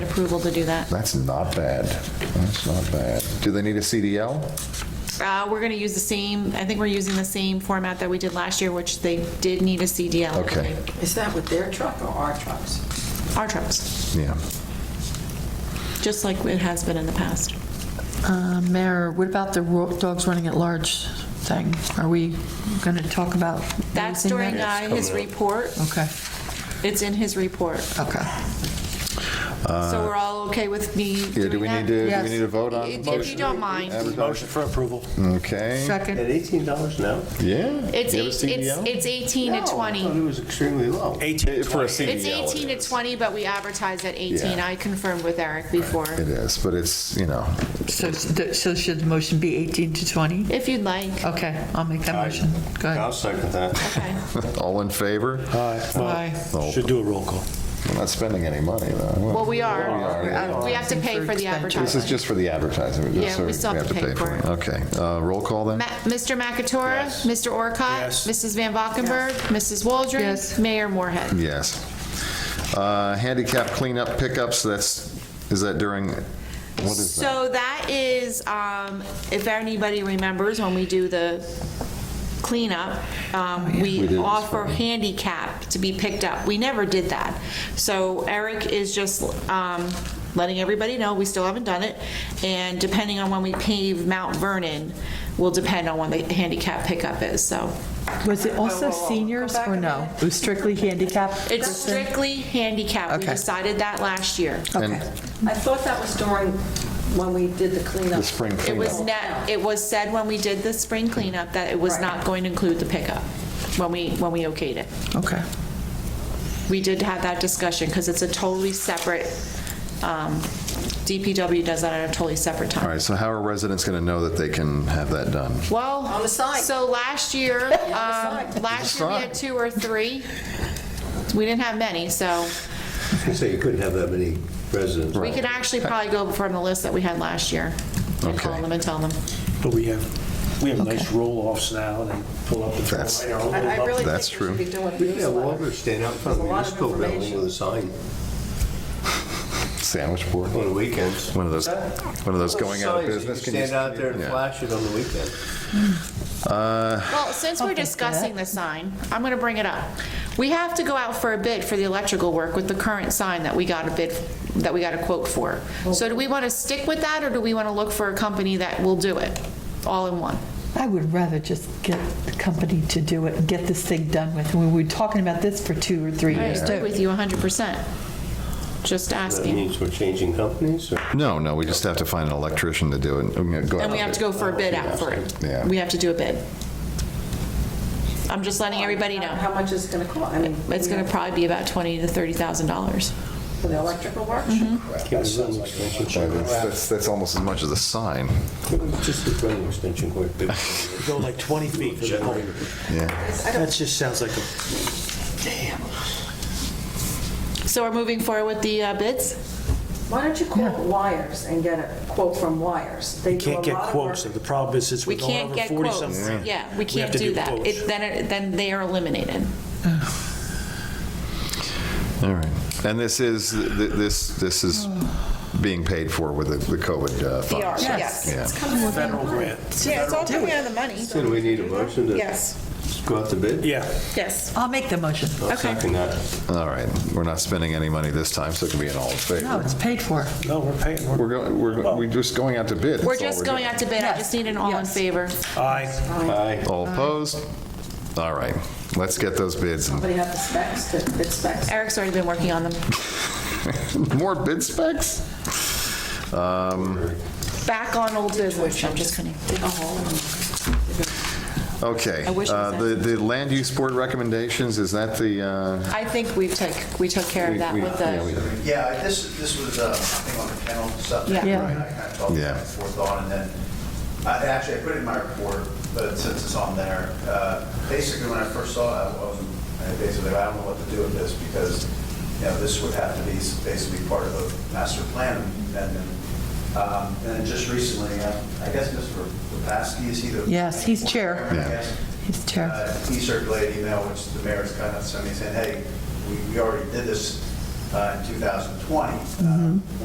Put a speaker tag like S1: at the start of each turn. S1: approval to do that.
S2: That's not bad. That's not bad. Do they need a CDL?
S1: Uh, We're going to use the same, I think we're using the same format that we did last year, which they did need a CDL.
S2: Okay,
S3: Is that with their truck or our trucks?
S1: Our trucks,
S2: yeah.
S1: just like it has been in the past.
S4: Uh, Mayor, what about the ro- dogs running at large thing? Are we going to talk about
S1: That's
S4: raising
S1: during
S4: that?
S1: uh, his report.
S4: Okay,
S1: It's in his report.
S4: okay.
S1: So we're all okay with me
S2: Uh, Yeah, do we need to, do we
S4: Yes.
S2: need to vote on?
S1: If if you don't mind.
S2: Advertise-
S5: Motion for approval.
S2: Okay,
S4: Second,
S6: At eighteen dollars now?
S2: yeah.
S1: It's,
S2: You
S1: eight-
S2: have a
S1: it's
S2: CDL?
S1: it's 18 to
S6: Oh, I thought
S1: 20.
S6: it was extremely low.
S5: Eighteen
S2: For a
S5: twenty.
S1: It's
S2: CDL,
S1: 18 to 20, but we advertise at 18.
S2: Yeah.
S1: I confirmed with Eric before.
S2: It is, but it's, you know,
S4: so so should the motion be 18 to 20?
S1: If you'd like.
S4: Okay, I'll make that motion. Go
S6: I'll
S4: ahead.
S6: second that.
S1: Okay.
S2: all in favor?
S5: Aye.
S4: Aye.
S5: Well, Should do a roll call.
S2: We're not spending any money, though.
S1: Well, we are.
S2: yeah.
S1: We have to pay for the
S2: This is
S1: advertising.
S2: just for the advertising. We're just
S1: Yeah,
S2: sort
S1: we
S2: of-
S1: still have to pay for it.
S2: Okay, Uh, roll call then?
S1: Ma- Mr. McAtora,
S5: Yes.
S1: Mr. Orcott,
S5: Yes.
S1: Mrs. Van Valkenburg, Mrs. Waldron,
S4: Yes.
S1: Mayor Moorhead.
S2: Yes. Uh, Handicap cleanup pickups, that's, is that during, what is that?
S1: So that is, um, if anybody remembers, when we do the cleanup, um,
S2: We did
S1: we
S2: this
S1: offer
S2: one.
S1: handicap to be picked up. We never did that. So Eric is just um, letting everybody know, we still haven't done it, and depending on when we pave Mount Vernon will depend on when the handicap pickup is, so.
S4: Was it also seniors or no? It was strictly handicapped?
S1: It's strictly handicap. We
S4: Okay.
S1: decided that last year.
S4: Okay,
S3: I thought that was during when we did the cleanup.
S2: The spring
S1: It was
S2: cleanup?
S1: net, it was said when we did the spring cleanup that it was
S3: Right.
S1: not going to include the pickup when we, when we okayed it.
S4: okay.
S1: We did have that discussion because it's a totally separate, um, DPW does that at a totally separate
S2: All
S1: time.
S2: right, so how are residents going to know that they can have that done?
S1: Well.
S3: On the side.
S1: So last year, um, last year we
S2: side.
S1: had two or three. We didn't have many, so
S6: I was gonna say, you couldn't have that many residents.
S1: we could actually probably go from the list that we had last year. and Call
S2: Okay.
S1: them and tell them.
S5: But we have, we have nice roll-offs now, and they pull up and throw
S2: That's-
S5: right our own
S3: I I
S5: up.
S3: really
S2: That's
S3: think we should
S2: true.
S3: be doing
S6: We could have
S3: newsletter.
S6: Walter stand out in front of
S3: There's a
S6: the
S3: lot of
S6: municipal building
S3: information.
S6: with a sign
S2: Sandwich board?
S6: on the weekends.
S2: One of those, one of those going out of
S6: Signs that you
S2: business. can you-
S6: Stand out there and
S2: Yeah.
S6: flash it on the weekend.
S1: Well, since we're discussing the sign, I'm going to bring it up. We have to go out for a bid for the electrical work with the current sign that we got a bid, that we got a quote for. So do we want to stick with that, or do we want to look for a company that will do it, all in one?
S4: I would rather just get the company to do it and get this thing done with. We were talking about this for two or three
S1: I
S4: years,
S1: agree
S4: too.
S1: with you 100%. Just
S6: That
S1: asking.
S6: means we're changing companies, or?
S2: No, no, we just have to find an electrician to do it. And go
S1: And we
S2: out
S1: have to
S2: there.
S1: go for a bid out for it.
S2: Yeah.
S1: We have to do a bid. I'm just letting everybody know.
S3: How much is it going to cost? I mean,
S1: It's going to probably be about twenty to $30,000.
S3: For the electrical work?
S7: Mm-hmm.
S6: Give us an extension
S2: Yeah,
S6: cord.
S2: That's, that's- that's almost as much as a sign.
S6: Just a running extension cord. big.
S5: Go like 20 feet for the pole.
S2: Yeah.
S5: That just sounds like a,
S1: So we're moving forward with the uh, bids?
S3: Why don't you call Wires and get a quote from Wires? They do a
S5: can't get
S3: lot of work.
S5: quotes, and the problem is, since
S1: We
S5: we're going
S1: can't
S5: over
S1: get
S5: 40
S1: quotes.
S5: something.
S1: Yeah, we
S5: have
S1: can't
S5: to
S1: do
S5: do
S1: that.
S5: quotes.
S1: It- Then, it- then they are eliminated.
S2: All right. And this is, th- th- this, this is being paid for with the the COVID uh, funds.
S7: Yes.
S2: Yeah.
S5: Federal grant.
S7: Yeah, it's all coming out of the money.
S6: So do we need a motion to?
S7: Yes.
S6: Go out to bid?
S5: Yeah.
S7: Yes.
S4: I'll make the motion.
S6: I'll second that.
S2: All right. We're not spending any money this time, so it can be an all in
S4: No,
S2: favor.
S4: it's paid for.
S5: No, we're paying,
S2: We're
S5: we're,
S2: going, we're, we're just going out to bid. That's all
S1: We're just going
S2: doing.
S1: out to bid. I just need an all in
S4: Yes.
S1: favor.
S5: aye.
S6: Aye.
S2: All opposed? All right. Let's get those bids. and-
S3: Somebody have the specs, the bid specs?
S1: Eric's already been working on them.
S2: More bid specs? Um,
S1: Back on old business. I'm just kidding.
S2: Okay.
S1: I wish it was
S2: Uh, The, the land use board recommendations, is that the, uh,
S1: I think we took, we took care
S2: We-
S1: of that
S2: we-
S1: with
S2: yeah, we-
S1: the,
S8: Yeah, this, this was, uh, I think on the kennel subject.
S1: Yeah.
S4: Yeah.
S8: I kind of talked
S2: Yeah.
S8: back and forth on, and then, I- actually, I put it in my report, but since it's on there, uh, basically, when I first saw it, I wasn't, I basically, I don't know what to do with this, because, you know, this would have to be basically part of the master plan amendment. Um, And then just recently, uh, I guess Mr. Lepaski, is he the?
S4: Yes, he's chair.
S8: I
S2: Yeah.
S8: guess.
S4: He's chair.
S8: Uh, He circulated an email, which the mayor's kind
S4: Mm-hmm.
S8: of sent me saying, hey, we we already did this uh, in 2020. uh,